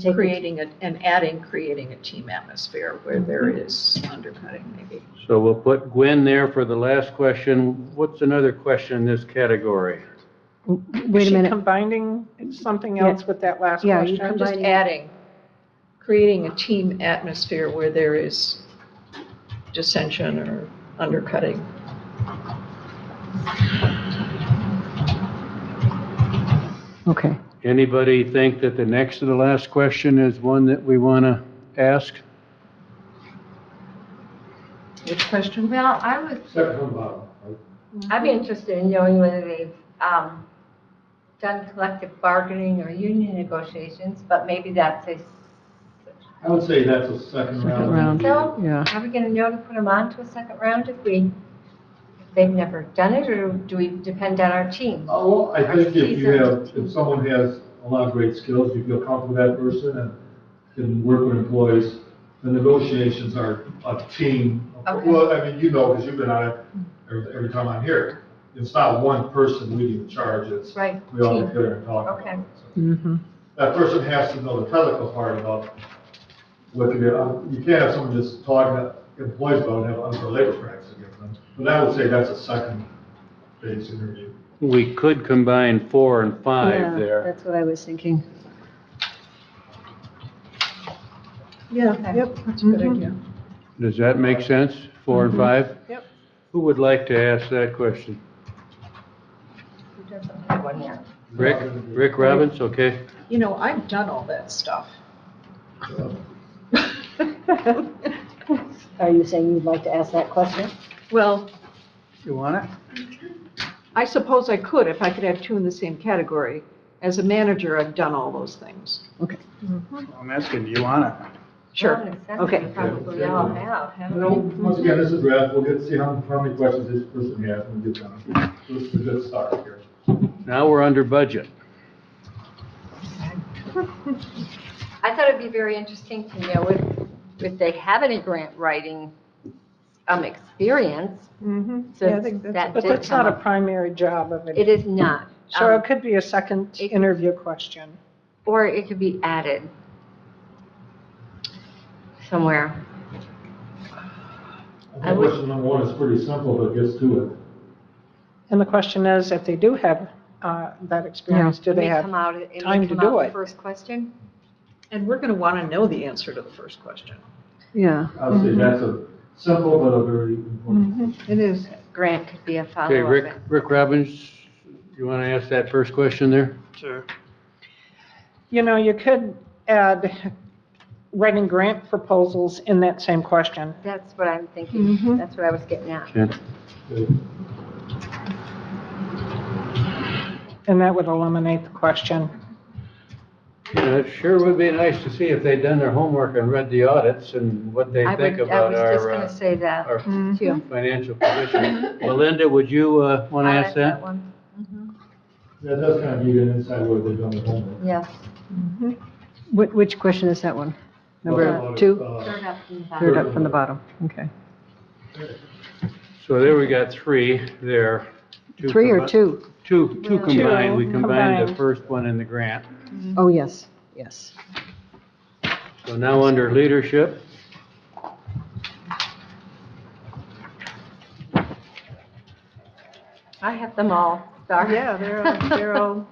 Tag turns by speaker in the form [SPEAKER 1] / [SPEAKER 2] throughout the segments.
[SPEAKER 1] Take it.
[SPEAKER 2] creating a- and adding, creating a team atmosphere where there is undercutting maybe.
[SPEAKER 3] So we'll put Gwen there for the last question. What's another question in this category?
[SPEAKER 4] Is
[SPEAKER 5] Wait a
[SPEAKER 4] she
[SPEAKER 5] minute,
[SPEAKER 4] combining something
[SPEAKER 5] Yeah.
[SPEAKER 4] else with that last
[SPEAKER 5] Yeah, you
[SPEAKER 4] question?
[SPEAKER 2] I'm just adding, creating a team atmosphere where there is dissension or undercutting.
[SPEAKER 5] okay.
[SPEAKER 3] Anybody think that the next to the last question is one that we want to ask?
[SPEAKER 2] Which question?
[SPEAKER 1] Well, I was,
[SPEAKER 3] Second from bottom.
[SPEAKER 1] I'd be interested in knowing whether they've um, done collective bargaining or union negotiations, but maybe that's a,
[SPEAKER 3] I would say that's a second
[SPEAKER 5] Second round,
[SPEAKER 1] so
[SPEAKER 5] yeah.
[SPEAKER 1] are we going to know to put them on to a second round if we, if they've never done it, or do we depend on our team?
[SPEAKER 6] Oh, well, I think if you
[SPEAKER 1] Seasoned.
[SPEAKER 6] have, if someone has a lot of great skills, you feel comfortable with that person and can work with employees, the negotiations are a team.
[SPEAKER 1] Okay.
[SPEAKER 6] Well, I mean, you know, because you've been on it every, every time I'm here. It's not one person leading the charge, it's,
[SPEAKER 1] Right,
[SPEAKER 6] we all get
[SPEAKER 1] team.
[SPEAKER 6] together and talk
[SPEAKER 1] Okay.
[SPEAKER 6] about it. So
[SPEAKER 3] Mm-hmm.
[SPEAKER 5] Mhm.
[SPEAKER 6] That person has to know the technical part about what you, you can't have someone just talking to employees about it and have unfair labor practices against them. But I would say that's a second phase interview.
[SPEAKER 3] We could combine four and
[SPEAKER 5] Yeah,
[SPEAKER 3] five there.
[SPEAKER 5] That's what I was thinking.
[SPEAKER 2] Yeah,
[SPEAKER 1] Okay.
[SPEAKER 2] yep, Mm-hmm. that's a good
[SPEAKER 5] Mhm.
[SPEAKER 2] idea.
[SPEAKER 3] Does that make sense? Four
[SPEAKER 7] Mm-hmm.
[SPEAKER 3] and five?
[SPEAKER 4] Yep.
[SPEAKER 3] Who would like to ask that question?
[SPEAKER 1] Who doesn't have one yet?
[SPEAKER 3] Rick? Rick Robbins? Okay.
[SPEAKER 2] You know, I've done all that stuff.
[SPEAKER 5] Are you saying you'd like to ask that question?
[SPEAKER 2] Well,
[SPEAKER 7] You want it?
[SPEAKER 2] I suppose I could if I could have two in the same category. As a manager, I've done all those things.
[SPEAKER 7] I'm asking, do you want it?
[SPEAKER 2] Sure.
[SPEAKER 1] Well, in a sense, we
[SPEAKER 5] Okay.
[SPEAKER 1] Probably all have,
[SPEAKER 6] You
[SPEAKER 1] haven't
[SPEAKER 6] know,
[SPEAKER 1] we?
[SPEAKER 6] once again, this is Brad, we'll get, see how, how many questions this person has when we get done. This is a good start here.
[SPEAKER 3] Now we're under budget.
[SPEAKER 1] I thought it'd be very interesting to know if, if they have any grant writing um, experience.
[SPEAKER 4] Mhm.
[SPEAKER 1] So
[SPEAKER 4] Yeah, I think that's-
[SPEAKER 1] that
[SPEAKER 4] But
[SPEAKER 1] did
[SPEAKER 4] that's not
[SPEAKER 1] come
[SPEAKER 4] a
[SPEAKER 1] up.
[SPEAKER 4] primary job of
[SPEAKER 1] It
[SPEAKER 4] it.
[SPEAKER 1] is not.
[SPEAKER 4] So
[SPEAKER 1] Um,
[SPEAKER 4] it could be a second
[SPEAKER 1] it-
[SPEAKER 4] interview question.
[SPEAKER 1] Or it could be added somewhere.
[SPEAKER 6] I
[SPEAKER 1] I
[SPEAKER 6] think
[SPEAKER 1] would-
[SPEAKER 6] question number one is pretty simple, but gets to it.
[SPEAKER 4] And the question is, if they do have uh, that experience, do
[SPEAKER 1] It
[SPEAKER 4] they
[SPEAKER 1] may
[SPEAKER 4] have?
[SPEAKER 1] come out, it may
[SPEAKER 4] time to
[SPEAKER 1] come
[SPEAKER 4] do
[SPEAKER 1] out in the
[SPEAKER 4] it?
[SPEAKER 1] first question.
[SPEAKER 2] And we're going to want to know the answer to the first question.
[SPEAKER 5] Yeah.
[SPEAKER 6] I'd
[SPEAKER 1] Mm-hmm.
[SPEAKER 6] say that's a simple but a very important.
[SPEAKER 2] It is.
[SPEAKER 1] Grant could be a follow-up.
[SPEAKER 3] Okay, Rick, Rick Robbins, you want to ask that first question there?
[SPEAKER 7] Sure.
[SPEAKER 4] You know, you could add writing grant proposals in that same question.
[SPEAKER 1] That's what I'm thinking. That's what I was getting at.
[SPEAKER 3] Okay.
[SPEAKER 4] And that would eliminate the question.
[SPEAKER 3] Yeah, It sure would be nice to see if they'd done their homework and read the audits and what they
[SPEAKER 1] I
[SPEAKER 3] think
[SPEAKER 1] would- I
[SPEAKER 3] about
[SPEAKER 1] was just
[SPEAKER 3] our,
[SPEAKER 1] going to
[SPEAKER 3] uh,
[SPEAKER 1] say mm-hmm. that
[SPEAKER 3] our
[SPEAKER 1] too.
[SPEAKER 3] financial position. Melinda, would you uh, want to
[SPEAKER 1] I
[SPEAKER 3] ask
[SPEAKER 1] like
[SPEAKER 3] that?
[SPEAKER 1] one.
[SPEAKER 6] That does kind of give you an insight where they've done the homework.
[SPEAKER 1] Yes.
[SPEAKER 5] Which, which question is that one? Number
[SPEAKER 6] Well,
[SPEAKER 5] two,
[SPEAKER 6] uh,
[SPEAKER 1] Third up from the bottom.
[SPEAKER 5] third up from the bottom, okay.
[SPEAKER 3] So there we got three there.
[SPEAKER 5] Three or
[SPEAKER 3] combi-
[SPEAKER 5] two?
[SPEAKER 3] Two, two
[SPEAKER 1] Two
[SPEAKER 3] combined. We combined the
[SPEAKER 4] combined.
[SPEAKER 3] first one and the grant.
[SPEAKER 5] Oh, yes, yes.
[SPEAKER 3] So now under leadership.
[SPEAKER 1] I have them all. Sorry.
[SPEAKER 4] Yeah, they're, all- they're all,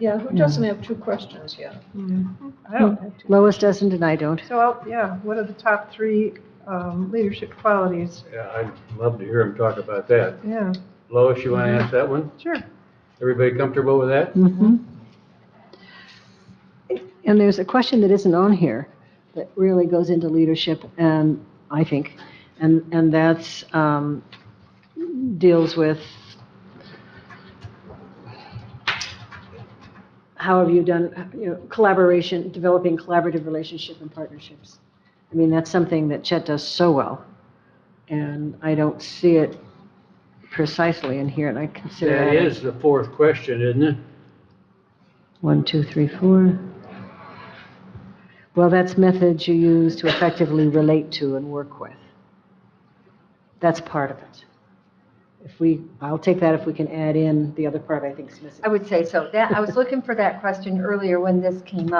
[SPEAKER 2] Yeah, who doesn't have two questions yet?
[SPEAKER 4] I don't have to.
[SPEAKER 5] Lois doesn't and I don't.
[SPEAKER 4] So, I'll- yeah, what are the top three um, leadership qualities?
[SPEAKER 3] Yeah, I'd love to hear him talk about that.
[SPEAKER 4] Yeah,
[SPEAKER 3] Lois, you want to ask that one?
[SPEAKER 4] sure.
[SPEAKER 3] Everybody comfortable with that?
[SPEAKER 5] Mhm. And there's a question that isn't on here that really goes into leadership and, I think, and, and that's, um, deals with how have you done, you know, collaboration, developing collaborative relationship and partnerships. I mean, that's something that Chet does so well. And I don't see it precisely in here and I consider
[SPEAKER 3] That
[SPEAKER 5] that a-
[SPEAKER 3] is the fourth question, isn't it?
[SPEAKER 5] one, two, three, four. Well, that's methods you use to effectively relate to and work with. That's part of it. If we, I'll take that if we can add in the other part I think is missing.
[SPEAKER 1] I would say so. That, I was looking for that question earlier when this came up.